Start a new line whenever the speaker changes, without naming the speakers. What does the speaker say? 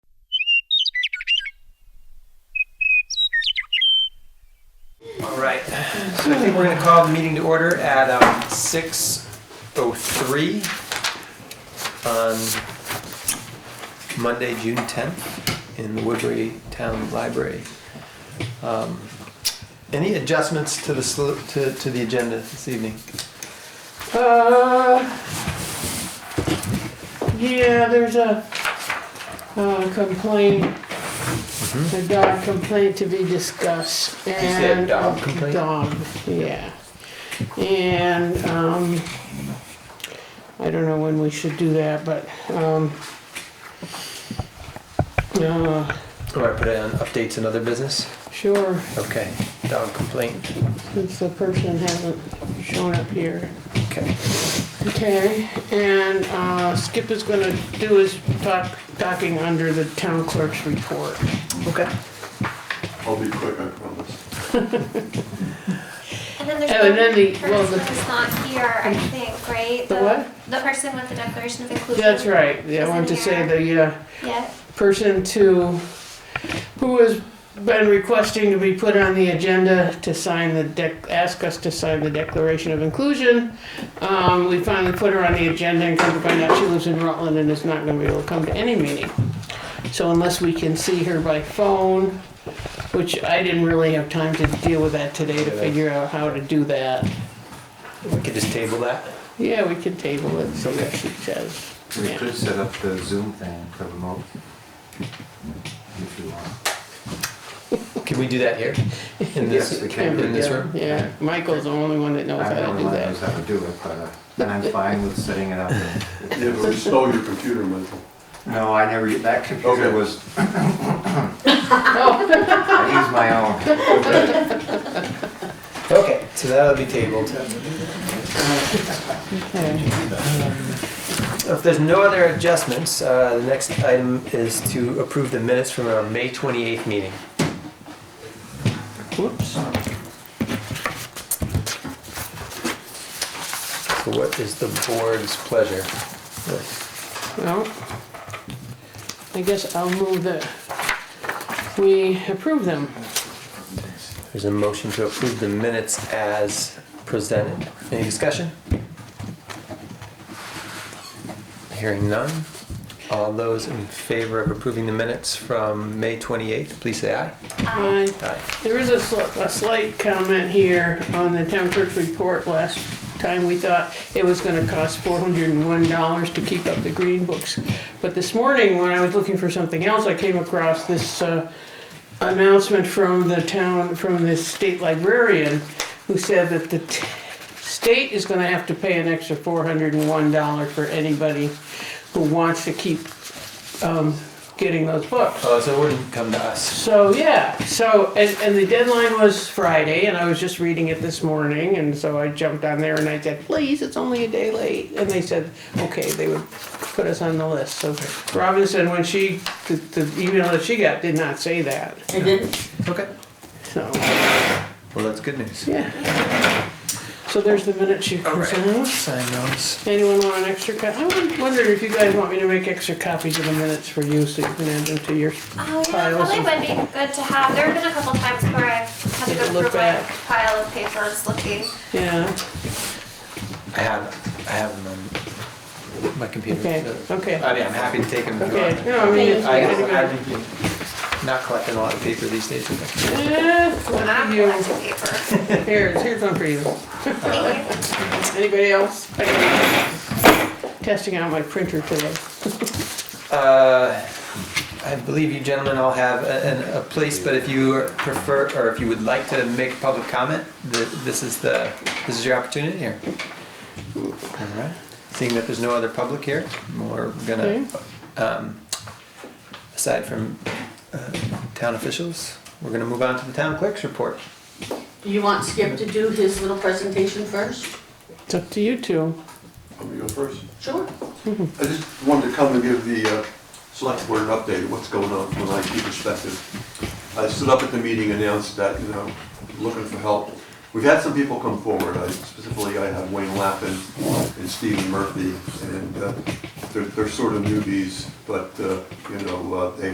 And I think we're going to call the meeting to order at um, 6:03 on Monday, June 10th, in the Woodbury Town Library. Um, Any adjustments to the, sl- to to the agenda this evening?
Uh, yeah, there's a, uh complaint. A dog complaint to be discussed
Mm-hmm. said
and.
dog
a
complaint?
Dog, yeah. And, um, I don't know when we should do that, but, um, uh,
Or I put it on updates and other business?
sure,
Okay, dog complaint,
since the person hasn't shown up here.
okay.
Okay, and uh, Skip is gonna do his doc- docking under the town clerk's report.
Okay.
I'll be quick, I promise.
And then there's
Oh, and then the-
the
well,
person
the-
that's not here, I think, right?
The what?
The person with the declaration of inclusion.
That's right, yeah, I wanted to say the uh,
Yeah,
person to, who has been requesting to be put on the agenda to sign the dec, ask us to sign the Declaration of Inclusion. Um, We finally put her on the agenda and come to find out she lives in Rutland and is not gonna be able to come to any meeting. So unless we can see her by phone, which I didn't really have time to deal with that today to figure out how to do that.
We could just table that?
Yeah, we could table it, see what she says.
We
Yeah.
could set up the Zoom thing for remote. If you want.
Can we do that here? In
Yes,
this,
we
Can
can.
we
in this
do-
room?
Yeah, Michael's the only one that knows
I
how
don't
to do
know
that.
how to do it, but, uh, and I'm fine with setting it up.
Yeah, but we stole your computer, Michael.
No, I never, that computer
Okay.
was. I used my own.
Okay, so that'll be tabled.
Okay.
If there's no other adjustments, uh, the next item is to approve the minutes from our May 28th meeting.
Whoops.
So what is the board's pleasure?
Well, I guess I'll move that we approve them.
There's a motion to approve the minutes as presented. Any discussion? Hearing none. All those in favor of approving the minutes from May 28th, please say aye.
Aye.
Aye.
There is a sli- a slight comment here on the town clerk's report. Last time we thought it was gonna cost four hundred and one dollars to keep up the green books. But this morning, when I was looking for something else, I came across this, uh, announcement from the town, from the state librarian, who said that the t- state is gonna have to pay an extra four hundred and one dollar for anybody who wants to keep, um, getting those books.
Oh, so it wouldn't come to us.
So yeah, so and, and the deadline was Friday, and I was just reading it this morning, and so I jumped on there and I said, "Please, it's only a day late," and they said, "Okay, they would put us on the list." So Robinson, when she the, the email that she got did not say that.
I didn't.
Okay.
So
Well, that's good news.
yeah. So there's the minutes you
All
can
right.
sign.
Sign those.
Anyone want an extra copy? I won- wondered if you guys want me to make extra copies of the minutes for you, so you can add them to your.
oh yeah,
Piles
probably
of-
would be good to have, there have been a couple times where I've had to
Take a
go
look
through my
back.
pile of papers looking.
Yeah.
I have, I have them on my computer.
Okay. Okay.
I mean, I'm happy to take them. if you
Okay.
want.
No, I mean. it's-
I, I'm not collecting a lot of paper these days. I
Eh,
When I'm
you-
collecting paper.
Here, here's one for you.
Thank you.
Anybody else? Testing out my printer today.
think. Uh, I believe you gentlemen all have a, an- a place, but if you prefer, or if you would like to make public comment, th- this is the, this is your opportunity here. All right. Seeing that there's no other public here, we're gonna, um, aside from, uh, town officials, we're gonna move on to the town clerk's report.
Do you want Skip to do his little presentation first?
It's up to you two.
Let me go first.
Sure.
I just wanted to come and give the uh, select board an update, of what's going on from an IT perspective. I stood up at the meeting, announced that, you know, looking for help. We've had some people come forward, I specifically, I have Wayne Lappin and Stephen Murphy, and uh, they're, they're sort of newbies, but, uh, you know, uh, they